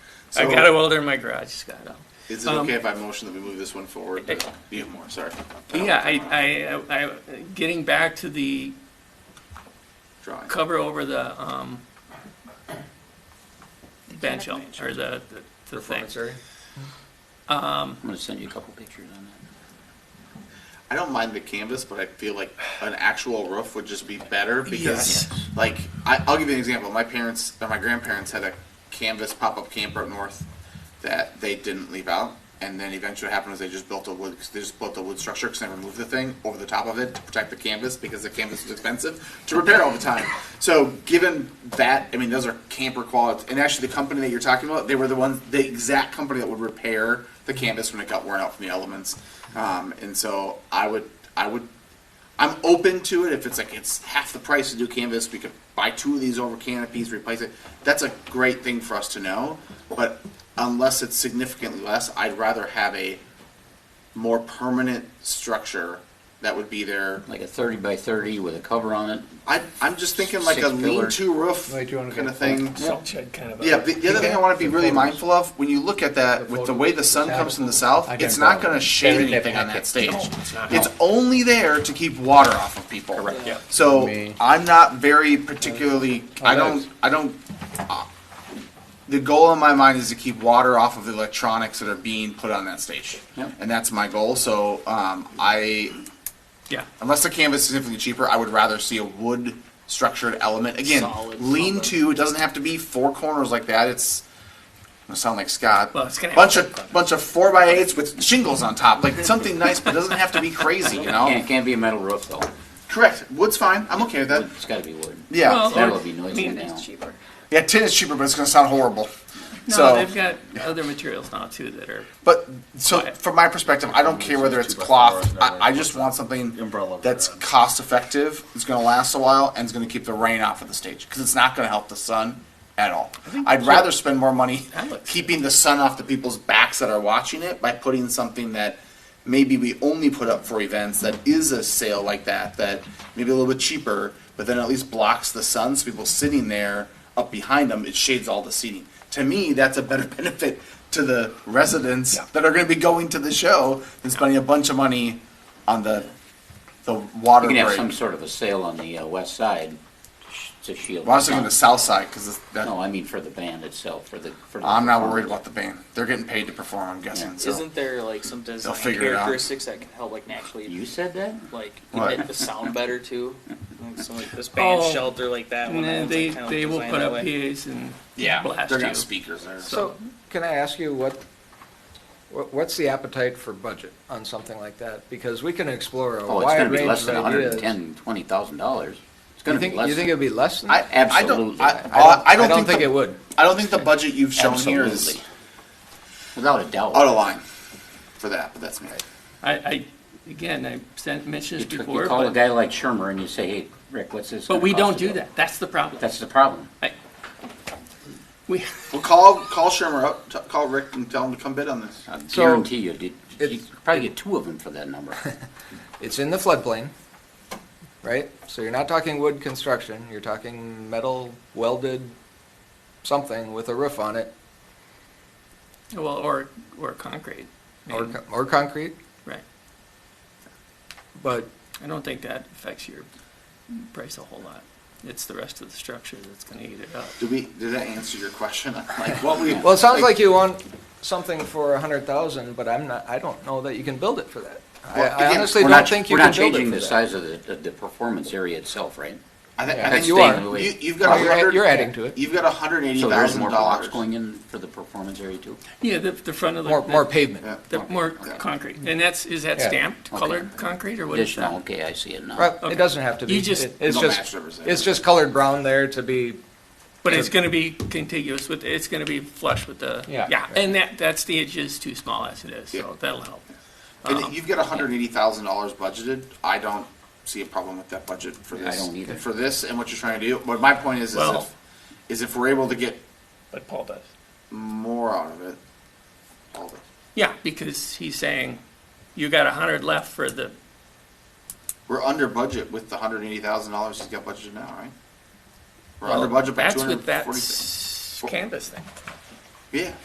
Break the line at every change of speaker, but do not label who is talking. I got a welder in my garage, Scott.
Is it
Um,
okay if I motion that we move this one forward?
Eh.
Be more, sorry.
Yeah, I, I, I, getting back to the
Drawing.
cover over the, um, bench, or the, the- the thing.
Performance area? Um. I'm gonna send you a couple pictures on that.
I don't mind the canvas, but I feel like an actual roof would just be better because,
Yes.
like, I, I'll give you an example. My parents or my grandparents had a canvas pop-up camper up north that they didn't leave out, and then eventually what happened was they just built a wood. They just built a wood structure because they removed the thing over the top of it to protect the canvas because the canvas was expensive to repair all the time. So, given that, I mean, those are camper quality. And actually, the company that you're talking about, they were the ones, the exact company that would repair the canvas when it got worn out from the elements. Um, and so, I would, I would I'm open to it if it's like it's half the price to do canvas. We could buy two of these over canopies, replace it. That's a great thing for us to know. But unless it's significantly less, I'd rather have a more permanent structure that would be there.
Like a thirty by thirty with a cover on it.
I, I'm just thinking like a
Six pillar.
lean-to roof
Like you wanna
kind of
get-
thing.
Salt shed kind of. a-
Yeah, the, the other thing I want to be really mindful of when you look at that with the way the sun comes from the south,
I got
it's not
it.
going to shade
Better
anything on that
packet.
stage.
it's not.
It's only there to keep water off of people. Correct.
Yeah.
So
Me.
I'm not very particularly. I
nice.
don't. I don't. uh, The goal in my mind is to keep water off of the electronics that are being put on that stage,
Yep.
and that's my goal. So um, I,
Yeah,
unless the canvas is significantly cheaper, I would rather see a wood structured element. Again,
Solid
lean to. It doesn't have to be four corners like that. It's. I sound like Scott.
Well, it's gonna
bunch
have-
of bunch of four by eights with shingles on top, like something nice, but it doesn't have to be crazy, you know.
Can't, can't be a metal roof though.
Correct. Wood's fine. I'm okay with that.
It's gotta be wood.
Yeah.
Well-
That'll be
I
noisy
mean,
now.
cheaper.
yeah, tin is cheaper, but it's going to sound horrible.
no,
so,
they've got other materials now too that are,
but so
Right.
from my perspective, I don't care whether it's cloth. I, I just want something
Umbrella over
that's
that.
cost effective. It's going to last a while and it's going to keep the rain off of the stage because it's not going to help the sun at all. I'd rather spend more money
That looks-
keeping the sun off the people's backs that are watching it by putting something that maybe we only put up for events that is a sale like that that maybe a little bit cheaper, but then at least blocks the sun so people sitting there up behind them it shades all the seating. To me, that's a better benefit to the residents that are going to be going to the show than spending a bunch of money on the the water
You can have
break.
some sort of a sail on the, uh, west side to sh- to shield.
Well, I was thinking
the
the
sun.
south side because
No, I mean for the band itself, for the, for the.
I'm not
performance.
worried about the band. They're getting paid to perform. I'm guessing.
Yeah.
So.
Isn't there like some design
figure it out.
characteristics that can help like naturally
You said that?
like
What?
make the sound better too? Like some like this band
Oh.
shelter like that one. that
and
one's,
they,
like, kind of
they will
designed
put
that
up
way.
PAs and
Yeah,
blast
they're
you.
got speakers there.
So, can I ask you what, what- what's the appetite for budget on something like that? Because we can explore a
Oh, it's gonna
wide
be
range
less
of
than a hundred and
ideas.
ten, twenty thousand dollars.
You
It's gonna be
think,
less.
you think
than-
it'd be less than?
I,
that?
I don't.
Absolutely.
I,
I don't-
I don't, think, the,
it would.
I don't think the budget you've shown here is
Absolutely. Without a doubt.
out of line for that. But that's me.
I, I, again, I sent, mentioned
You
this
took- you
before,
call a
but,
guy like Shermer and you say, hey, Rick, what's this?
but
gonna
we
cost
don't
to
do that. That's the problem.
That's the problem.
I- We,
Well, call call Shermer up. T- call Rick and tell him to come bid on this.
I
So,
guarantee you, did- you
it's-
could probably get two of them for that number.
It's in the floodplain, right? So you're not talking wood construction, you're talking metal welded something with a roof on it,
well, or, or concrete. I
or,
mean,
co- or concrete,
Right.
but
I don't think that affects your price a whole lot. It's the rest of the structure that's gonna eat it up.
Do we? Did that answer your question? Like what we?
Well, it sounds like you want something for a hundred thousand, but I'm not, I don't know that you can build it for that. I-
Well,
I
again,
honestly
We're
don't
not-
think you
we're
can
not
build
changing
it
the
for that.
size of the, the- the performance area itself, right?
I, thi- I
Yeah.
think
That's
you
staying the
are.
way- Oh,
You, you've got
Well,
a
You're add-
hundred.
you're adding to it,
You've got a hundred eighty
So there's
thousand
more blocks
dollars.
going in for the performance area too?
Yeah, the, the front of the.
more,
the-
more pavement.
The more concrete. And that's, is that
Yeah.
stamped
Okay.
colored concrete or what is
Additional,
that?
okay, I see it
Right,
now.
Okay.
it doesn't have to be,
You just-
It- it's
No
just,
match represented.
it's just colored brown there to be,
But it's gonna be contiguous with, it's gonna be flush with the.
Yeah.
Yeah, and that, that stage is too small as it is,
Yeah.
so that'll help. Um,
And you've got hundred eighty thousand dollars budgeted. I don't see a problem with that budget for
I
this.
don't either.
For this and what you're trying to do. But my point is, is
Well-
if, is if we're able to get
But Paul does.
more out of it, all of it.
Yeah, because he's saying, you got a hundred left for the,
We're under budget with the hundred eighty thousand dollars he's got budgeted now, right? We're
well,
under budget by
that's
two
with
hundred
that
forty.
s- canvas thing.
Yeah.